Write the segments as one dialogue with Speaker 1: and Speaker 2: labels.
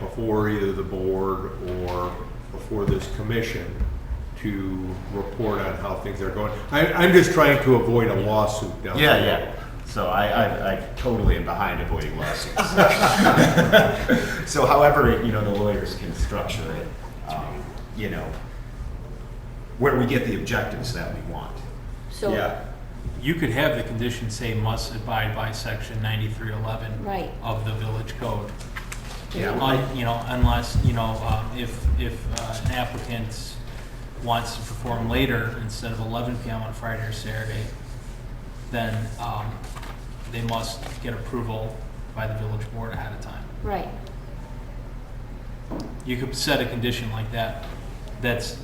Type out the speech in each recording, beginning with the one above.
Speaker 1: before either the board or before this commission to report on how things are going. I, I'm just trying to avoid a lawsuit down the
Speaker 2: Yeah,
Speaker 1: road.
Speaker 2: yeah. So I, I, I totally am behind avoiding lawsuits. so however, you know, the lawyers can structure it, um, you know, where we get the objectives that we want.
Speaker 1: Yeah.
Speaker 3: So,
Speaker 4: You could have the condition say must abide by section ninety-three eleven.
Speaker 3: Right.
Speaker 4: Of the village code.
Speaker 2: Yeah.
Speaker 4: Un- You know, unless, you know, um, if, if uh, an applicant wants to perform later instead of eleven PM on Friday or Saturday, then um, they must get approval by the village board ahead of time.
Speaker 3: right,
Speaker 4: You could set a condition like that, that's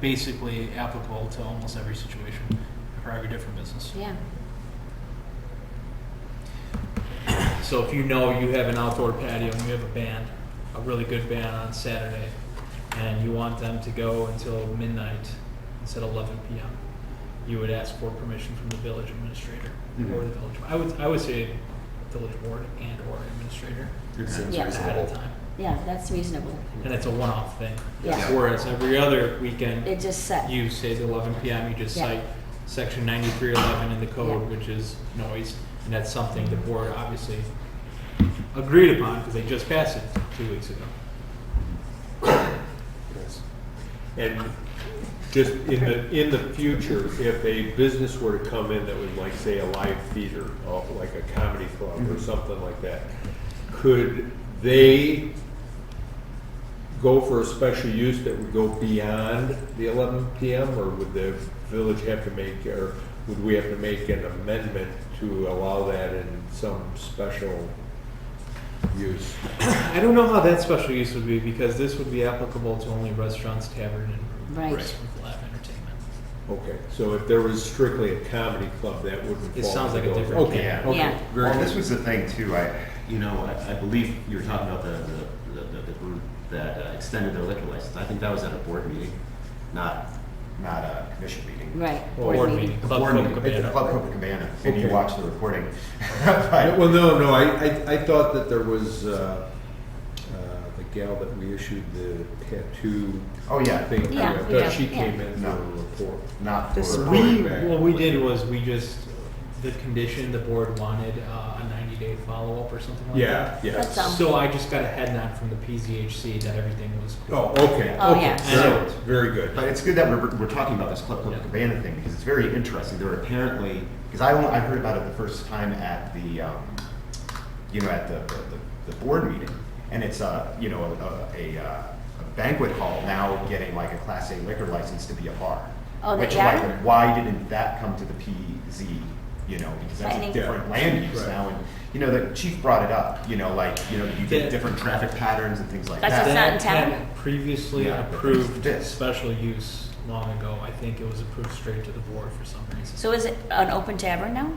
Speaker 4: basically applicable to almost every situation for every different business.
Speaker 3: yeah.
Speaker 4: So if you know you have an outdoor patio and you have a band, a really good band on Saturday, and you want them to go until midnight instead of eleven PM, you would ask for permission from the village administrator or the village, I would, I would say village board and or administrator
Speaker 1: It seems
Speaker 3: Yeah.
Speaker 4: ahead of
Speaker 1: reasonable.
Speaker 4: time.
Speaker 3: Yeah, that's reasonable.
Speaker 4: And it's a one-off thing.
Speaker 3: Yeah.
Speaker 4: Whereas every other weekend,
Speaker 3: It just set.
Speaker 4: you say the eleven PM, you just
Speaker 3: Yeah.
Speaker 4: cite section ninety-three eleven in the code,
Speaker 3: Yeah.
Speaker 4: which is noise, and that's something the board obviously agreed upon, because they just passed it two weeks ago.
Speaker 1: Yes. And just in the, in the future, if a business were to come in that would like, say, a live theater, or like a comedy club or something like that, could they go for a special use that would go beyond the eleven PM? Or would the village have to make, or would we have to make an amendment to allow that in some special use?
Speaker 4: I don't know how that special use would be, because this would be applicable to only restaurants, tavern, and
Speaker 3: Right.
Speaker 4: restaurant with live entertainment.
Speaker 1: Okay, so if there was strictly a comedy club, that wouldn't.
Speaker 4: It
Speaker 1: fall
Speaker 4: sounds like a
Speaker 1: under those.
Speaker 4: different
Speaker 1: Okay,
Speaker 2: can.
Speaker 1: okay,
Speaker 3: Yeah.
Speaker 1: very
Speaker 2: Well, this
Speaker 1: good.
Speaker 2: was the thing too, I, you know, I, I believe you were talking about the, the, the, the group that uh, extended their liquor license. I think that was at a board meeting, not, not a commission meeting.
Speaker 3: Right.
Speaker 1: Board
Speaker 4: meeting.
Speaker 2: The
Speaker 4: Club
Speaker 2: board meeting,
Speaker 4: Copacabana.
Speaker 2: at the Club Copacabana, and you
Speaker 1: Okay.
Speaker 2: watched the recording.
Speaker 1: Uh, Well, no, no, I, I, I thought that there was, uh, uh, the gal that we issued the tattoo
Speaker 2: Oh, yeah.
Speaker 1: thing. to,
Speaker 3: Yeah,
Speaker 1: I
Speaker 3: yeah,
Speaker 1: thought she
Speaker 3: yeah.
Speaker 1: came in for
Speaker 2: No.
Speaker 1: a report.
Speaker 2: Not
Speaker 5: This
Speaker 2: for.
Speaker 4: We,
Speaker 1: Right.
Speaker 4: what we did was, we just, the condition, the board wanted uh, a ninety-day follow-up or something like that.
Speaker 1: Yeah, yeah.
Speaker 3: That's um, all.
Speaker 4: So I just got a head nod from the PZHC that everything was cool.
Speaker 1: Oh, okay.
Speaker 3: Oh,
Speaker 1: okay,
Speaker 3: yeah.
Speaker 1: very- Very good.
Speaker 2: But it's good that we're, we're talking about this Club
Speaker 4: Yeah.
Speaker 2: Copacabana thing because it's very interesting. There were apparently, because I, only- I heard about it the first time at the, um, you know, at the, the, the board meeting. And it's a, you know, a, a, uh, a banquet hall now getting like a Class A liquor license to be a bar.
Speaker 3: Oh, they
Speaker 2: Which
Speaker 3: are?
Speaker 2: like, why didn't that come to the PZ, you know, because that's
Speaker 3: Planning.
Speaker 2: a different land use
Speaker 1: Right.
Speaker 2: now. And, you know, the chief brought it up, you know, like, you know, you
Speaker 4: Yeah.
Speaker 2: get different traffic patterns and things like
Speaker 3: That's
Speaker 2: that.
Speaker 3: just not in
Speaker 4: That
Speaker 3: town?
Speaker 4: had Previously
Speaker 2: Yeah, but
Speaker 4: approved
Speaker 2: this-
Speaker 4: special use long ago. I think it was approved straight to the board for some reason.
Speaker 3: So is it an open tavern now?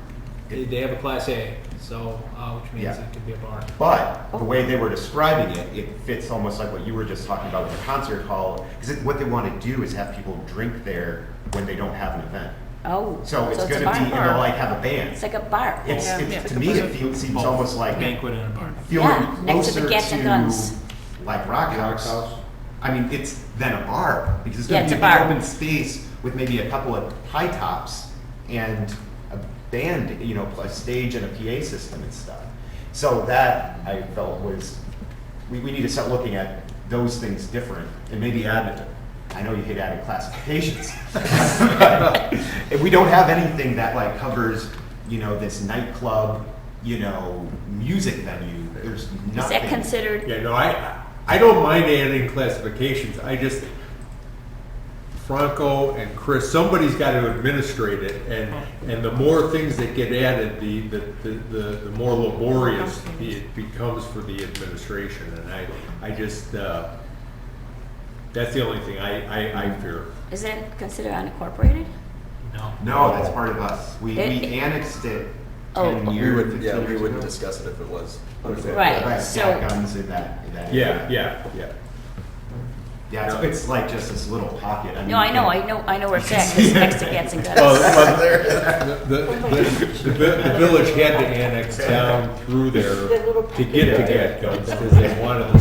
Speaker 4: They they have a class A, so, uh, which means
Speaker 2: Yeah.
Speaker 4: it could be a bar.
Speaker 2: But
Speaker 3: Oh.
Speaker 2: the way they were describing it, it fits almost like what you were just talking about with the concert hall. Because what they want to do is have people drink there when they don't have an event.
Speaker 3: Oh.
Speaker 2: So it's
Speaker 3: a
Speaker 2: going to
Speaker 3: bar.
Speaker 2: be, and they'll like have a
Speaker 3: It's
Speaker 2: band.
Speaker 3: like a bar.
Speaker 2: It's,
Speaker 3: Yeah.
Speaker 2: it's, to me, it feels, seems almost like,
Speaker 4: Banquet and a bar.
Speaker 3: Yeah,
Speaker 2: feeling
Speaker 3: next to the
Speaker 2: closer
Speaker 3: Cats and
Speaker 2: to,
Speaker 3: Guns.
Speaker 2: like Rock House. I mean, it's then a bar, because it's
Speaker 3: Yeah,
Speaker 2: going
Speaker 3: it's
Speaker 2: to
Speaker 3: a
Speaker 2: be a big
Speaker 3: bar.
Speaker 2: open space with maybe a couple of high tops and a band, you know, a stage and a PA system and stuff. So that I felt was, we, we need to start looking at those things different and maybe add, I know you hate adding classifications. If we don't have anything that like covers, you know, this nightclub, you know, music venue, there's nothing.
Speaker 3: Is that considered,
Speaker 1: Yeah, no, I, I don't mind adding classifications, I just, Franco and Chris, somebody's gotta administrate it, and, and the more things that get added, the, the, the- the, the more laborious it becomes for the administration, and I, I just, uh, that's the only thing I, I, I fear.
Speaker 3: is that considered unincorporated?
Speaker 4: No.
Speaker 5: Oh.
Speaker 2: No, that's part of us. We, we
Speaker 3: It-
Speaker 2: annexed it
Speaker 3: Oh.
Speaker 2: ten
Speaker 3: We
Speaker 5: We
Speaker 2: years,
Speaker 5: would, yeah,
Speaker 2: fifteen
Speaker 5: we
Speaker 2: years
Speaker 5: wouldn't
Speaker 2: ago.
Speaker 5: discuss it if it was.
Speaker 1: What is that?
Speaker 3: Right.
Speaker 2: Right,
Speaker 3: So-
Speaker 2: yeah, guns in that, in that.
Speaker 1: Yeah, yeah, yeah.
Speaker 2: Yeah, it's, it's like just this little pocket. mean,
Speaker 3: No, I
Speaker 2: you
Speaker 3: know,
Speaker 2: can-
Speaker 3: I know, I know where it's at, 'cause it's next to Cats and Gutters.
Speaker 1: Well, well, the, the, the vi- the village had to annex down through there to get to Gatco, because they wanted